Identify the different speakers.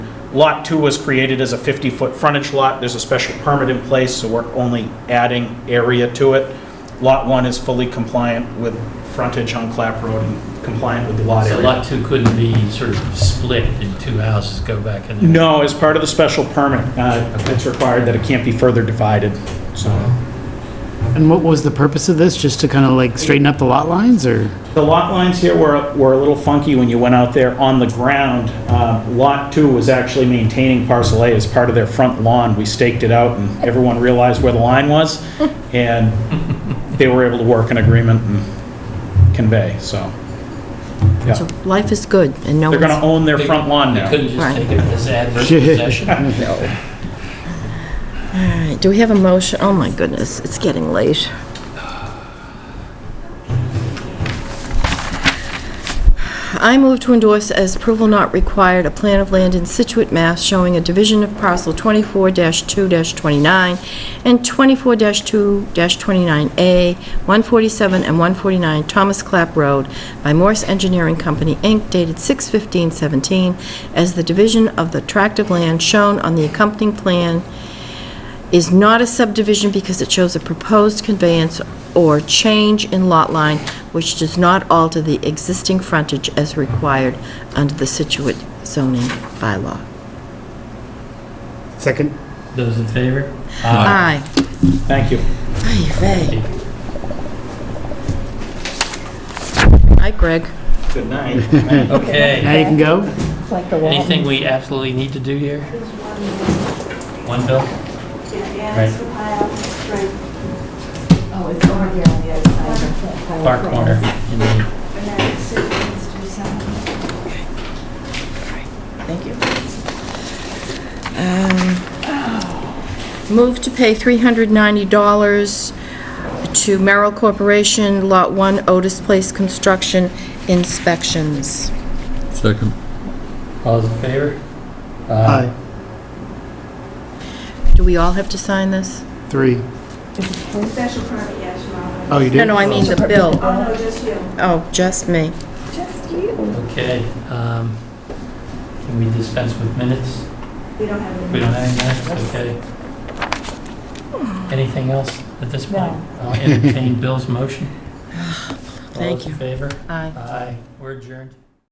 Speaker 1: Lot 2 was created as a 50-foot frontage lot. There's a special permit in place, so we're only adding area to it. Lot 1 is fully compliant with frontage on Clap Road and compliant with the lot
Speaker 2: So
Speaker 1: area.
Speaker 2: lot two couldn't be sort of split in two houses, go back in there?
Speaker 1: No, as part of the special permit, uh, it's required that it can't be further divided, so.
Speaker 3: And what was the purpose of this? Just to kind of like straighten up the lot lines or?
Speaker 1: The lot lines here were, were a little funky when you went out there on the ground. Uh, Lot 2 was actually maintaining parcel A as part of their front lawn. We staked it out, and everyone realized where the line was, and they were able to work an agreement and convey, so. Yeah.
Speaker 4: So life is good, and no
Speaker 1: They're going to
Speaker 4: one's...
Speaker 1: own their front lawn
Speaker 2: You
Speaker 1: now.
Speaker 2: couldn't just
Speaker 4: Right.
Speaker 2: take it as adverse possession?
Speaker 4: All right, do we have a motion? Oh, my goodness, it's getting late. I move to endorse as approval not required, a plan of land in Situate, Mass. showing a division of parcel 24-2-29 and 24-2-29A, 147 and 149 Thomas Clap Road by Morse Engineering Company, Inc., dated 6/15/17, as the division of the tract of land shown on the accompanying plan is not a subdivision because it shows a proposed conveyance or change in lot line which does not alter the existing frontage as required under the Situate zoning bylaw.
Speaker 3: Second.
Speaker 2: Those in favor?
Speaker 4: Aye.
Speaker 1: Thank you.
Speaker 4: Aye, aye. Hi, Greg.
Speaker 1: Good night.
Speaker 2: Okay,
Speaker 3: Now you can go?
Speaker 2: anything we absolutely need to do here? One bill?
Speaker 5: Oh, it's over here on the other side.
Speaker 2: Far corner. in the-
Speaker 4: Thank you. Um, Move to pay $390 to Merrill Corporation, Lot 1, Otis Place Construction Inspections.
Speaker 6: Second.
Speaker 2: All those in favor? Uh,
Speaker 4: Uh,
Speaker 3: Aye.
Speaker 4: Do we all have to sign this?
Speaker 3: Three.
Speaker 5: Special permit, yes, Your Honor.
Speaker 3: Oh, you did?
Speaker 4: No, no, I mean the bill.
Speaker 5: Oh, no, just you.
Speaker 4: Oh, just me.
Speaker 5: Just you.
Speaker 2: Okay, um, can we dispense with minutes?
Speaker 5: We don't have any.
Speaker 2: We don't have any minutes, okay. Anything else at this point? I'll entertain Bill's motion.
Speaker 4: Thank
Speaker 2: All those in
Speaker 4: you.
Speaker 2: favor?
Speaker 4: Aye.
Speaker 2: Aye, we're adjourned.